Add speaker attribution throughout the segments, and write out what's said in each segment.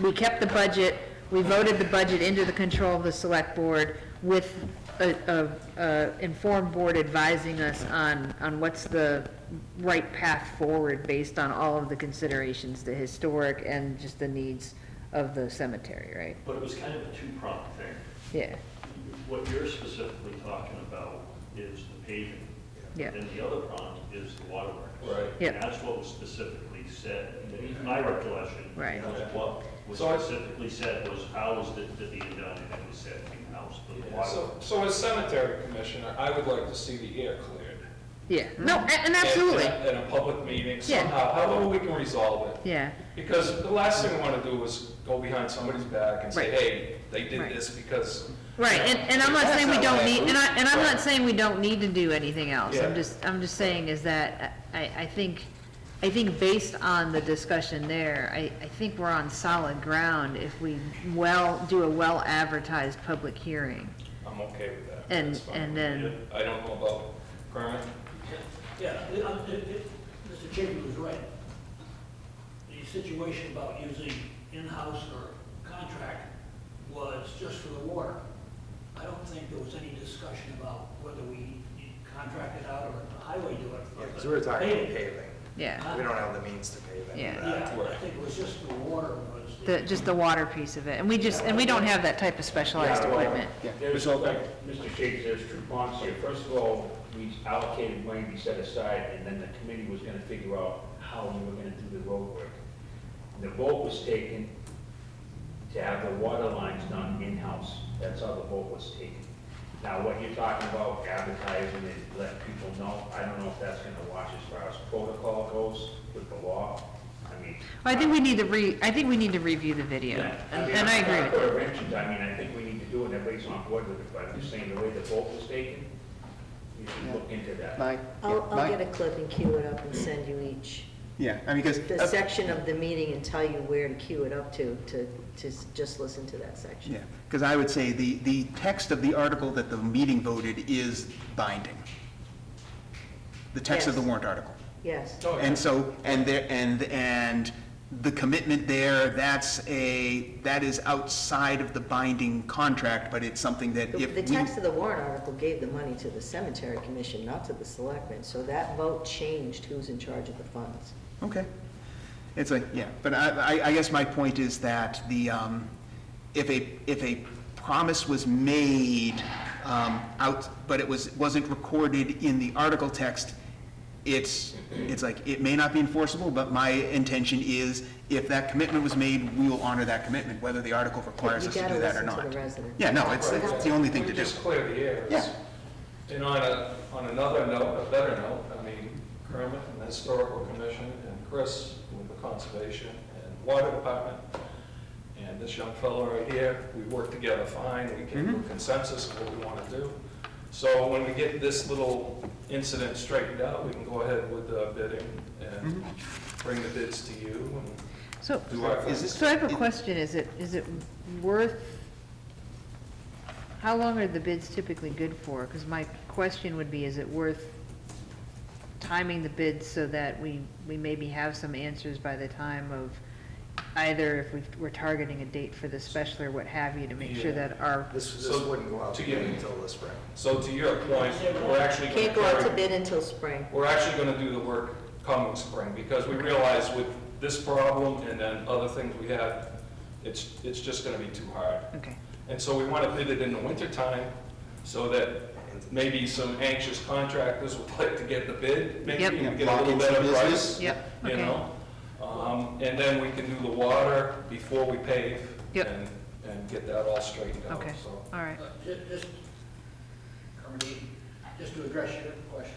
Speaker 1: we kept the budget, we voted the budget into the control of the select board with a, a, a informed board advising us on, on what's the right path forward based on all of the considerations, the historic and just the needs of the cemetery, right?
Speaker 2: But it was kind of a two-pronged thing.
Speaker 1: Yeah,
Speaker 2: What you're specifically talking about is the paving.
Speaker 1: Yeah.
Speaker 2: And the other prong is the waterworks.
Speaker 3: Right. Mm-hmm.
Speaker 1: Yeah.
Speaker 2: And that's what was specifically said, in my recollection.
Speaker 1: Right.
Speaker 2: was What was
Speaker 3: So I-
Speaker 2: specifically said was housed at the end done, and it was said in house, but the
Speaker 3: Yeah, So,
Speaker 2: waterworks.
Speaker 3: so as cemetery commissioner, I would like to see the air cleared.
Speaker 1: yeah, no, a- and
Speaker 3: At-
Speaker 1: absolutely,
Speaker 3: At at a public meeting
Speaker 1: Yeah.
Speaker 3: somehow, however we can resolve it.
Speaker 1: yeah,
Speaker 3: Because the last thing we want to do is go behind somebody's back and say,
Speaker 1: Right.
Speaker 3: hey, they
Speaker 1: Right.
Speaker 3: did this because.
Speaker 1: right, and, and I'm not
Speaker 3: That's
Speaker 1: saying we
Speaker 3: not
Speaker 1: don't
Speaker 3: what I
Speaker 1: need, and I, and I'm not
Speaker 3: Right.
Speaker 1: saying we don't need to do anything else, I'm
Speaker 3: Yeah.
Speaker 1: just, I'm just saying is that, uh, I, I think, I think based on the discussion there, I, I think we're on solid ground if we well, do a well-advertised public hearing,
Speaker 3: I'm okay with that.
Speaker 1: and,
Speaker 3: That's fine.
Speaker 1: and then,
Speaker 3: I don't know about Kermit.
Speaker 4: Yeah, it- uh, it- it- Mr. Chapin was right. The situation about using in-house or contract was just for the water. I don't think there was any discussion about whether we contracted out or let the highway do it. for
Speaker 5: Because we were talking about
Speaker 4: paving.
Speaker 5: paving.
Speaker 1: yeah,
Speaker 5: We don't have the means to pave any
Speaker 1: Yeah.
Speaker 5: of that.
Speaker 4: Yeah, I think it was just the water was.
Speaker 1: the, just the water piece of it, and we just, and we don't have that type of specialized
Speaker 6: Yeah, well,
Speaker 1: equipment.
Speaker 6: There's, like, Mr. Shakes, there's two parts here. First of all, we allocated money we set aside, and then the committee was gonna figure out how we were gonna do the road work. The vote was taken to have the water lines done in-house. That's how the vote was taken. Now, what you're talking about advertising and let people know, I don't know if that's gonna watch as far as protocol goes with the law. I mean.
Speaker 1: I think we need to re, I think we need to review the video,
Speaker 6: Yeah,
Speaker 1: and
Speaker 6: mean,
Speaker 1: and I
Speaker 6: I'm
Speaker 1: agree
Speaker 6: not
Speaker 1: with
Speaker 6: for inventions, I mean, I think we need to do it, and everybody's on board with it, but I'm just saying, the way the vote was taken, you should look into that.
Speaker 7: My,
Speaker 8: I'll, I'll get
Speaker 7: my,
Speaker 8: a clip and cue it up and send you each,
Speaker 7: yeah, I mean, because,
Speaker 8: the section of the meeting and tell you where to cue it up to, to, to s- just listen to that section.
Speaker 7: yeah, because I would say the, the text of the article that the meeting voted is binding. The text of the
Speaker 8: Yes.
Speaker 7: warrant article.
Speaker 8: Yes,
Speaker 3: Oh, yeah.
Speaker 7: And so, and there, and, and the commitment there, that's a, that is outside of the binding contract, but it's something that
Speaker 8: the
Speaker 7: if
Speaker 8: the
Speaker 7: we.
Speaker 8: text of the warrant article gave the money to the cemetery commission, not to the selectmen, so that vote changed who's in charge of the funds.
Speaker 7: Okay. It's like, yeah, but I, I, I guess my point is that the, um, if a, if a promise was made, um, out, but it was, wasn't recorded in the article text, it's, it's like, it may not be enforceable, but my intention is, if that commitment was made, we will honor that commitment, whether the article requires
Speaker 8: You
Speaker 7: us to
Speaker 8: gotta
Speaker 7: do that or
Speaker 8: listen to
Speaker 7: not.
Speaker 8: the resident.
Speaker 7: Yeah, no, it's, it's the only thing to
Speaker 3: We
Speaker 7: do.
Speaker 3: just clear the air.
Speaker 7: Yeah.
Speaker 3: And on a, on another note, a better note, I mean, Kermit and the Historical Commission and Chris with the Conservation and Water Department and this young fellow right here, we work together fine, we came
Speaker 7: Mm-hmm.
Speaker 3: to a consensus of what we want to do. So when we get this little incident straightened out, we can go ahead with the bidding and
Speaker 7: Mm-hmm.
Speaker 3: bring the bids to you
Speaker 1: So,
Speaker 3: and do our
Speaker 7: Is
Speaker 3: thing.
Speaker 7: this-
Speaker 1: so I have a question, is it, is it worth, how long are the bids typically good for? Because my question would be, is it worth timing the bids so that we, we maybe have some answers by the time of either if we, we're targeting a date for the special or what have you, to make sure
Speaker 3: Yeah.
Speaker 1: that our,
Speaker 5: This, this
Speaker 3: So,
Speaker 5: wouldn't go out
Speaker 3: to
Speaker 5: to
Speaker 3: get-
Speaker 5: bid until the spring.
Speaker 3: So to your point, we're actually.
Speaker 8: Can't go out to
Speaker 3: comparing-
Speaker 8: bid until spring.
Speaker 3: We're actually gonna do the work coming spring, because we realize with this problem and then other things we have, it's, it's just gonna be too hard.
Speaker 1: okay.
Speaker 3: And so we wanna bid it in the wintertime, so that maybe some anxious contractors would like to get the bid, maybe,
Speaker 1: Yep.
Speaker 3: and get a
Speaker 7: Lock
Speaker 3: little
Speaker 7: in some
Speaker 3: better
Speaker 7: business.
Speaker 3: price.
Speaker 1: Yep,
Speaker 3: You
Speaker 1: okay.
Speaker 3: know? Um, and then we can do the water before we pave.
Speaker 1: Yep.
Speaker 3: And, and get that all straightened out,
Speaker 1: Okay.
Speaker 3: so.
Speaker 1: All right,
Speaker 4: Uh, ju- Just, Kermit, just to address your question,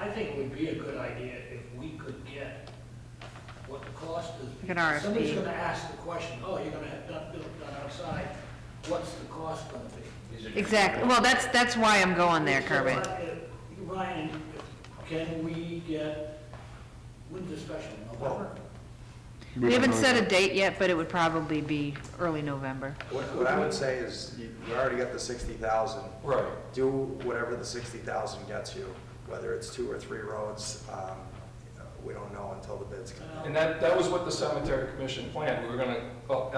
Speaker 4: I- I think it would be a good idea if we could get what the cost is.
Speaker 1: Like an RFP.
Speaker 4: Somebody's gonna ask the question, oh, you're gonna have done, built done outside, what's the cost gonna be?
Speaker 1: exactly, well, that's, that's why I'm going there,
Speaker 4: So,
Speaker 1: Kermit.
Speaker 4: uh, Ryan, can we get, when's the special, November?
Speaker 1: We haven't set a date yet, but it would probably be early November.
Speaker 5: What, what I would say is, you, you already got the sixty thousand.
Speaker 3: Right.
Speaker 5: Do whatever the sixty thousand gets you, whether it's two or three roads, um, we don't know until the bids come out.
Speaker 3: And that, that was what the cemetery commission planned, we were gonna uh,